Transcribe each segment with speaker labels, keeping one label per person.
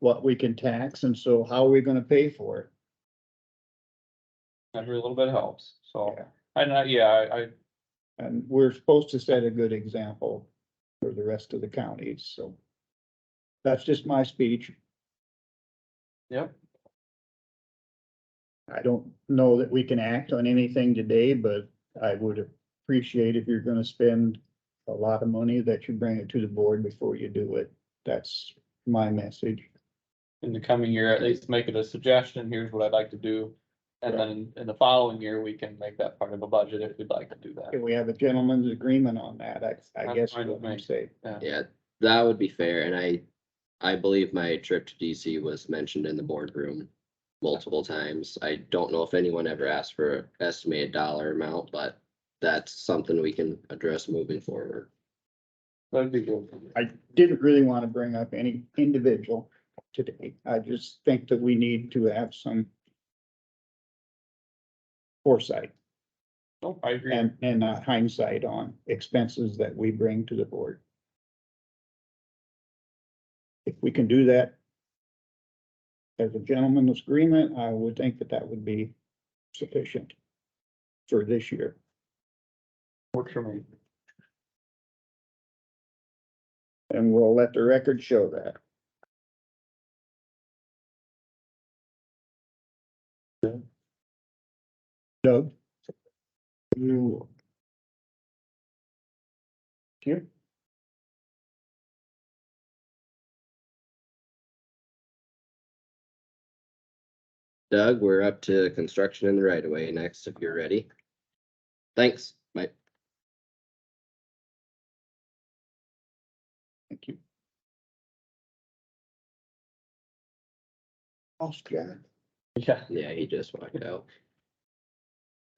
Speaker 1: what we can tax, and so how are we gonna pay for it?
Speaker 2: every little bit helps, so,
Speaker 1: Yeah.
Speaker 2: and I, yeah, I, I,
Speaker 1: And we're supposed to set a good example for the rest of the counties, so. That's just my speech.
Speaker 2: Yep.
Speaker 1: I don't know that we can act on anything today, but I would appreciate if you're gonna spend a lot of money that you bring it to the board before you do it. That's my message.
Speaker 2: in the coming year, at least make it a suggestion, here's what I'd like to do. And then in the following year, we can make that part of a budget if we'd like to do that.
Speaker 1: Can we have a gentleman's agreement on that? I, I
Speaker 2: That's
Speaker 1: guess
Speaker 2: fine
Speaker 1: what
Speaker 2: with
Speaker 1: I'm
Speaker 2: me.
Speaker 1: saying.
Speaker 3: Yeah, that would be fair, and I, I believe my trip to DC was mentioned in the boardroom multiple times. I don't know if anyone ever asked for an estimated dollar amount, but that's something we can address moving forward.
Speaker 2: That'd be good.
Speaker 1: I didn't really want to bring up any individual today. I just think that we need to have some foresight
Speaker 2: Nope, I agree.
Speaker 1: and, and not hindsight on expenses that we bring to the board. If we can do that as a gentleman's agreement, I would think that that would be sufficient for this year.
Speaker 2: Works for me.
Speaker 1: And we'll let the record show that. Doug? You. Here?
Speaker 3: Doug, we're up to construction in the right of way next, if you're ready. Thanks, Mike.
Speaker 1: Thank you. Lost Jack.
Speaker 2: Yeah.
Speaker 3: Yeah, he just walked out.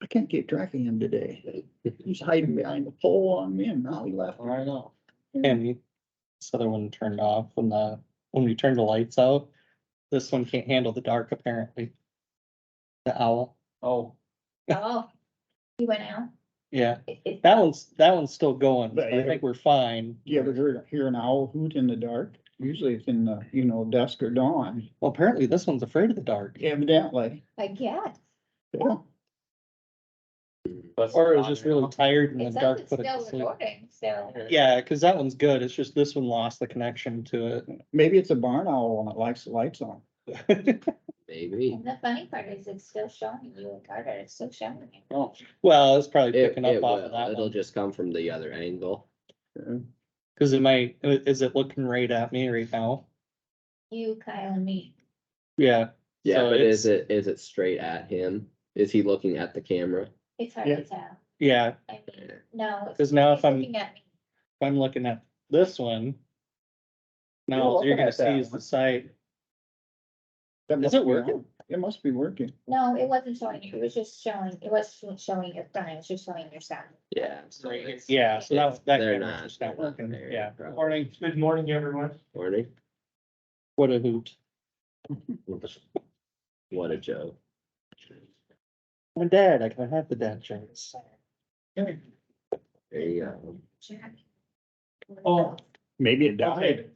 Speaker 1: I can't get track of him today. He's hiding behind a pole on me and now he left.
Speaker 2: I know.
Speaker 4: And we, this other one turned off when the, when we turned the lights out. This one can't handle the dark apparently. The owl,
Speaker 2: Oh,
Speaker 5: Oh, he went out.
Speaker 4: yeah,
Speaker 5: It- it-
Speaker 4: that one's, that one's still going, so
Speaker 1: But
Speaker 4: I
Speaker 1: yeah.
Speaker 4: think we're fine.
Speaker 1: You ever heard, hear an owl hoot in the dark? Usually it's in the, you know, dusk or dawn,
Speaker 4: Well, apparently this one's afraid of the dark,
Speaker 1: evidently.
Speaker 5: I guess.
Speaker 1: Yeah.
Speaker 2: that's
Speaker 4: or it was
Speaker 2: not
Speaker 4: just
Speaker 2: here.
Speaker 4: really tired and
Speaker 5: It
Speaker 4: then
Speaker 5: says
Speaker 4: dark
Speaker 5: it's
Speaker 4: put it to
Speaker 5: still
Speaker 4: sleep.
Speaker 5: recording, so.
Speaker 2: Okay.
Speaker 4: Yeah, cause that one's good, it's just this one lost the connection to
Speaker 1: Maybe it's a barn owl and it likes the lights on.
Speaker 4: it.
Speaker 3: Maybe.
Speaker 5: And the funny part is it's still showing you and Carter, it's still showing you.
Speaker 2: Oh,
Speaker 4: Well, it's probably
Speaker 3: It,
Speaker 4: picking up
Speaker 3: it
Speaker 4: off of
Speaker 3: will,
Speaker 4: that
Speaker 3: it'll
Speaker 4: one,
Speaker 3: just come from the other angle.
Speaker 4: cause it might, is it looking right at me right now?
Speaker 5: You, Kyle and me.
Speaker 4: Yeah,
Speaker 3: Yeah,
Speaker 4: So
Speaker 3: but is
Speaker 4: it's-
Speaker 3: it, is it straight at him? Is he looking at the camera?
Speaker 5: It's hard
Speaker 1: Yeah.
Speaker 5: to tell.
Speaker 4: yeah,
Speaker 5: I mean, no. it's-
Speaker 4: Cause now if
Speaker 5: he's
Speaker 4: I'm-
Speaker 5: Looking at me.
Speaker 4: if I'm looking at this one.
Speaker 1: You're
Speaker 4: Now, all you're
Speaker 1: looking
Speaker 4: gonna
Speaker 1: at that
Speaker 4: see is
Speaker 1: one.
Speaker 4: the site,
Speaker 1: That
Speaker 4: Is
Speaker 1: must
Speaker 4: it
Speaker 1: be
Speaker 4: working?
Speaker 1: on. It must be working.
Speaker 5: No, it wasn't showing you. It was just showing, it wasn't showing your front, it was just showing your sound.
Speaker 3: Yeah. so
Speaker 2: Right
Speaker 3: it's-
Speaker 4: yeah, so that's, that
Speaker 3: They're
Speaker 4: camera's
Speaker 3: not-
Speaker 4: just not
Speaker 3: they're not
Speaker 4: working,
Speaker 3: there,
Speaker 4: yeah.
Speaker 3: probably.
Speaker 4: Morning,
Speaker 6: Good morning, everyone.
Speaker 3: Morning.
Speaker 4: what a hoot.
Speaker 3: What a joke.
Speaker 4: My dad, I can have the dad jokes.
Speaker 3: There you go.
Speaker 5: Jack.
Speaker 6: Oh.
Speaker 1: Maybe it
Speaker 6: Okay.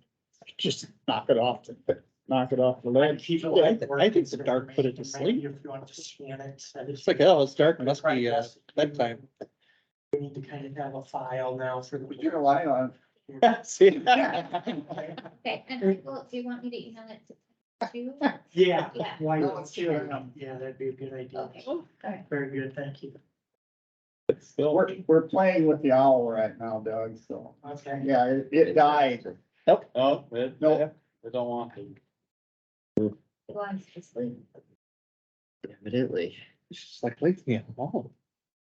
Speaker 1: Just knock it off, the- knock it off the
Speaker 6: Let
Speaker 1: ledge.
Speaker 6: people like
Speaker 4: I think the dark put it to
Speaker 6: information,
Speaker 4: sleep.
Speaker 6: If you want to scan it. and
Speaker 4: It's like, oh, it's dark, must be uh,
Speaker 6: Yes.
Speaker 4: bedtime.
Speaker 6: We need to kind of have a file now for
Speaker 1: We can rely on,
Speaker 6: the.
Speaker 4: See?
Speaker 5: Okay, and well, do you want me to email it to you?
Speaker 6: Yeah.
Speaker 5: Yeah. Oh,
Speaker 6: Why,
Speaker 1: No, let's do that.
Speaker 6: yeah, that'd be a good idea.
Speaker 5: Okay, Oh, all right.
Speaker 6: Very good, thank you.
Speaker 1: we're, we're playing with the owl right now, Doug, so.
Speaker 6: Okay.
Speaker 1: Yeah, it, it died.
Speaker 2: oh, it,
Speaker 1: No.
Speaker 2: I don't want to.
Speaker 5: He wants to sleep.
Speaker 3: Evidently.
Speaker 4: It's just like, leave me Oh. alone.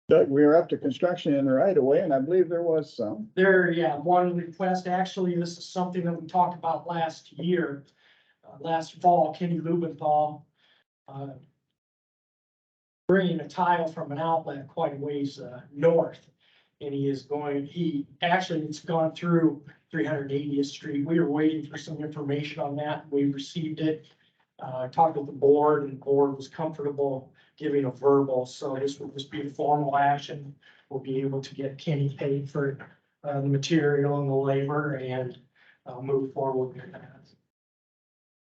Speaker 1: Doug, we were up to construction in the right of way and I believe there was some.
Speaker 6: There, yeah, one request, actually, this is something that we talked about last year, uh, last fall, Kenny Lubenthal. uh, Bringing a tile from an outlet quite a ways, uh, north. And he is going, he, actually, it's gone through three hundred eightieth street. We were waiting for some information on that. We received it. Uh, talked with the board and the board was comfortable giving a verbal, so this will just be a formal action. We'll be able to get Kenny paid for it uh, the material and the labor and, uh, move forward with that.